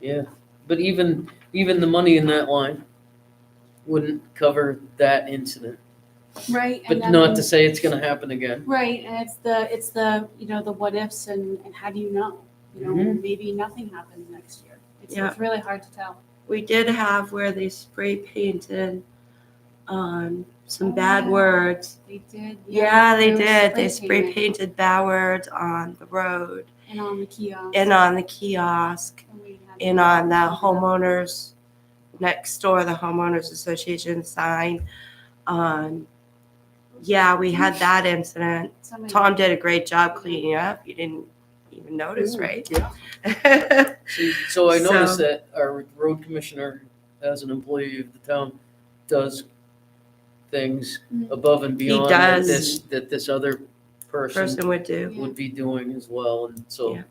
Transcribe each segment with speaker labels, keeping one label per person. Speaker 1: Yeah, but even, even the money in that line wouldn't cover that incident.
Speaker 2: Right.
Speaker 1: But
Speaker 2: and that
Speaker 1: not
Speaker 2: means-
Speaker 1: to say it's gonna happen again.
Speaker 2: Right, and it's the, it's the, you know, the what ifs and, and how do you know? You know,
Speaker 1: Mm-hmm.
Speaker 2: maybe nothing happens next year. It's,
Speaker 3: Yeah.
Speaker 2: it's really hard to tell.
Speaker 3: We did have where they spray painted um, some
Speaker 2: Oh,
Speaker 3: bad
Speaker 2: yeah.
Speaker 3: words.
Speaker 2: They did.
Speaker 3: Yeah, they
Speaker 2: was
Speaker 3: did. They spray
Speaker 2: paint
Speaker 3: painted bad words on the road
Speaker 2: And on the kiosk.
Speaker 3: and on the kiosk
Speaker 2: And we had-
Speaker 3: and on the homeowners next door, the homeowners association sign. Um, yeah, we had that incident.
Speaker 2: Somebody-
Speaker 3: Tom did a great job cleaning up. You didn't even notice, right?
Speaker 1: Yeah. So- So I noticed that our road commissioner, as an employee of the town, does things
Speaker 2: Mhm.
Speaker 1: above and beyond that
Speaker 3: does.
Speaker 1: this, that this other person
Speaker 3: Person would do.
Speaker 1: would be doing as well, and so,
Speaker 3: Yeah.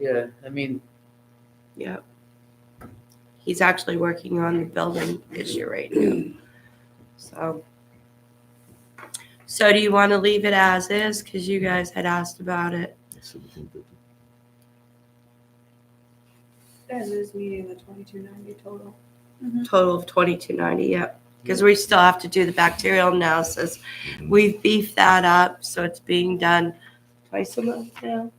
Speaker 1: yeah, I mean,
Speaker 3: Yep. He's actually working on the building issue right now. So. So do you want to leave it as is? Because you guys had asked about it.
Speaker 4: And this meeting, the twenty-two ninety total.
Speaker 3: Total of twenty-two ninety, yep. Because we still have to do the bacterial analysis. We've beefed that up, so it's being done twice a month now,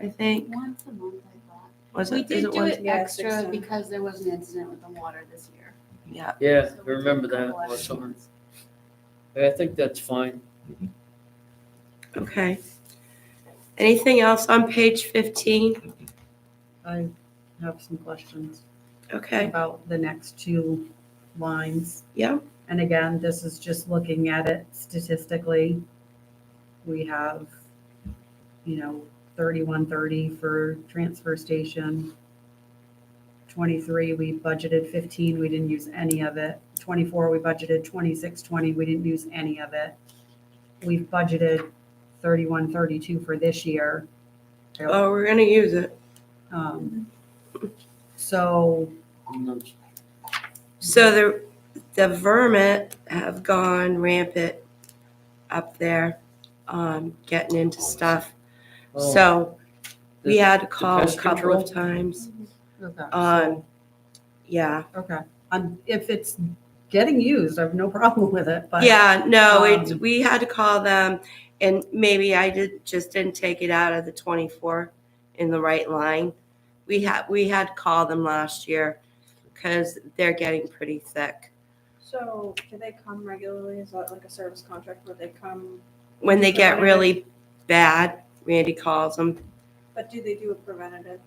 Speaker 3: I think.
Speaker 2: Once a month, I thought.
Speaker 3: Was
Speaker 2: We
Speaker 3: it, is
Speaker 2: did
Speaker 3: it
Speaker 2: do
Speaker 3: once?
Speaker 2: it
Speaker 4: Yeah, six
Speaker 2: extra
Speaker 4: times.
Speaker 2: because there was an incident with the water this year.
Speaker 3: Yeah,
Speaker 1: yeah,
Speaker 2: So we
Speaker 1: I
Speaker 2: did a
Speaker 1: remember that
Speaker 2: couple
Speaker 1: last
Speaker 2: extra
Speaker 1: summer.
Speaker 2: ones.
Speaker 1: I think that's fine.
Speaker 3: okay. Anything else on page fifteen?
Speaker 5: I have some questions
Speaker 3: Okay,
Speaker 5: about the next two lines.
Speaker 3: yeah,
Speaker 5: And again, this is just looking at it statistically. We have, you know, thirty-one thirty for transfer station. Twenty-three, we budgeted fifteen, we didn't use any of it. Twenty-four, we budgeted twenty-six twenty, we didn't use any of it. We've budgeted thirty-one thirty-two for this year.
Speaker 3: oh, we're gonna use it.
Speaker 5: Um, So
Speaker 1: I'm not
Speaker 3: So the the vermin have gone rampant up there, um, getting into stuff.
Speaker 1: Oh,
Speaker 3: so we
Speaker 1: the-
Speaker 3: had to call a
Speaker 1: pest
Speaker 3: couple
Speaker 1: control?
Speaker 3: of times.
Speaker 5: Okay.
Speaker 3: Um, yeah,
Speaker 5: Okay. Um, if it's getting used, I have no problem with it, but.
Speaker 3: yeah, no, it's
Speaker 5: um,
Speaker 3: we had to call them, and maybe I did just didn't take it out of the twenty four in the right line. We had we had to call them last year because they're getting pretty thick.
Speaker 4: So do they come regularly? Is that like a service contract where they come?
Speaker 3: When they get
Speaker 4: Preventative.
Speaker 3: really bad, Randy calls them.
Speaker 4: But do they do a preventative?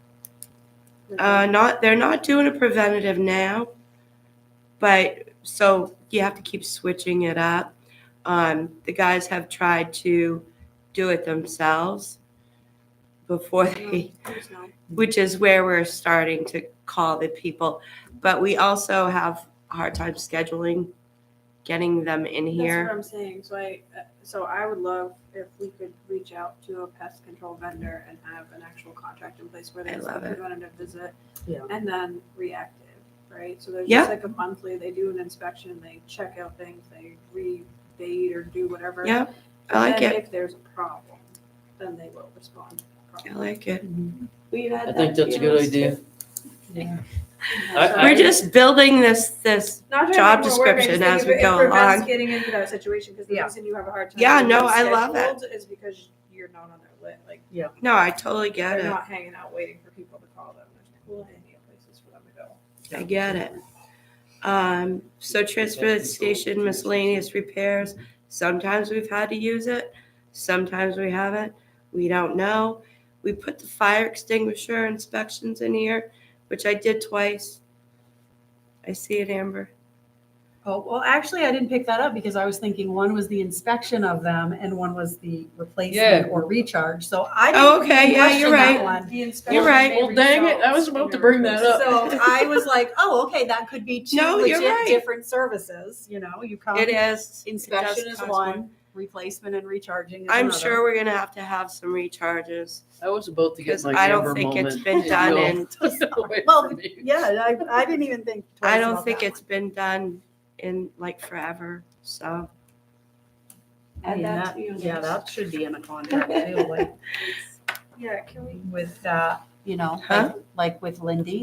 Speaker 3: Uh, not, they're not doing a preventative now, but so you have to keep switching it up. Um, the guys have tried to do it themselves before they, which is where we're starting to call the people. But we also have a hard time scheduling, getting them in
Speaker 4: That's
Speaker 3: here.
Speaker 4: what I'm saying. So I, uh, so I would love if we could reach out to a pest control vendor and have an actual contract in place where
Speaker 3: I
Speaker 4: there's a
Speaker 3: love it.
Speaker 4: preventative visit.
Speaker 5: Yeah.
Speaker 4: And then reactive, right? So there's
Speaker 3: Yeah.
Speaker 4: just like a monthly, they do an inspection, they check out things, they rebate or do whatever.
Speaker 3: Yeah, I like
Speaker 4: then
Speaker 3: it.
Speaker 4: If there's a problem, then they will respond.
Speaker 3: I like it.
Speaker 4: We've had
Speaker 1: I think that's a good idea. I-
Speaker 3: We're just building this, this,
Speaker 4: Not
Speaker 3: job
Speaker 4: trying to make more work, I just
Speaker 3: description
Speaker 4: think
Speaker 3: as
Speaker 4: if
Speaker 3: we
Speaker 4: it
Speaker 3: go
Speaker 4: prevents
Speaker 3: along.
Speaker 4: Getting into that situation because the
Speaker 5: Yeah.
Speaker 4: reason you have a hard time.
Speaker 3: Yeah,
Speaker 4: getting
Speaker 3: no, I love it.
Speaker 4: scheduled Is because you're not on their list, like
Speaker 3: no, I totally get
Speaker 4: they're
Speaker 3: it.
Speaker 4: not hanging out waiting for people to call them. There's plenty of places for them to go.
Speaker 3: I get it. Um, so transfer station miscellaneous repairs, sometimes we've had to use it, sometimes we haven't, we don't know. We put the fire extinguisher inspections in here, which I did twice. I see it, Amber.
Speaker 5: Oh, well, actually, I didn't pick that up because I was thinking one was the inspection of them and one was the
Speaker 1: Yeah.
Speaker 5: replacement or recharge. So I.
Speaker 3: Oh,
Speaker 5: didn't
Speaker 3: okay,
Speaker 5: even
Speaker 3: yeah, you're
Speaker 5: question that
Speaker 3: right.
Speaker 5: one.
Speaker 4: The
Speaker 3: You're right.
Speaker 1: Well, dang it, I was about to bring that up.
Speaker 5: So I was like, oh, okay, that could be two
Speaker 3: No, you're
Speaker 5: legit
Speaker 3: right.
Speaker 5: different services, you know, you come.
Speaker 3: It is. it does
Speaker 5: Inspection is
Speaker 3: cost more.
Speaker 5: one, replacement and recharging is another.
Speaker 3: I'm sure we're gonna have to have some recharges,
Speaker 1: I was about to get
Speaker 3: because
Speaker 1: my
Speaker 3: I
Speaker 1: Amber
Speaker 3: don't
Speaker 1: moment.
Speaker 3: think it's been done
Speaker 1: Y'all
Speaker 3: in,
Speaker 1: took it away
Speaker 5: Well,
Speaker 1: from me.
Speaker 5: Yeah, I, I didn't even think.
Speaker 3: I
Speaker 5: twice
Speaker 3: don't
Speaker 5: about
Speaker 3: think
Speaker 5: that
Speaker 3: it's been done in like forever, so.
Speaker 5: one. I mean,
Speaker 4: Add that
Speaker 5: that,
Speaker 4: to your
Speaker 5: yeah,
Speaker 4: list.
Speaker 5: that should be in a contract too, like
Speaker 4: Yeah, can we
Speaker 5: with, uh, you know,
Speaker 3: Huh?
Speaker 5: like- like with Lindy,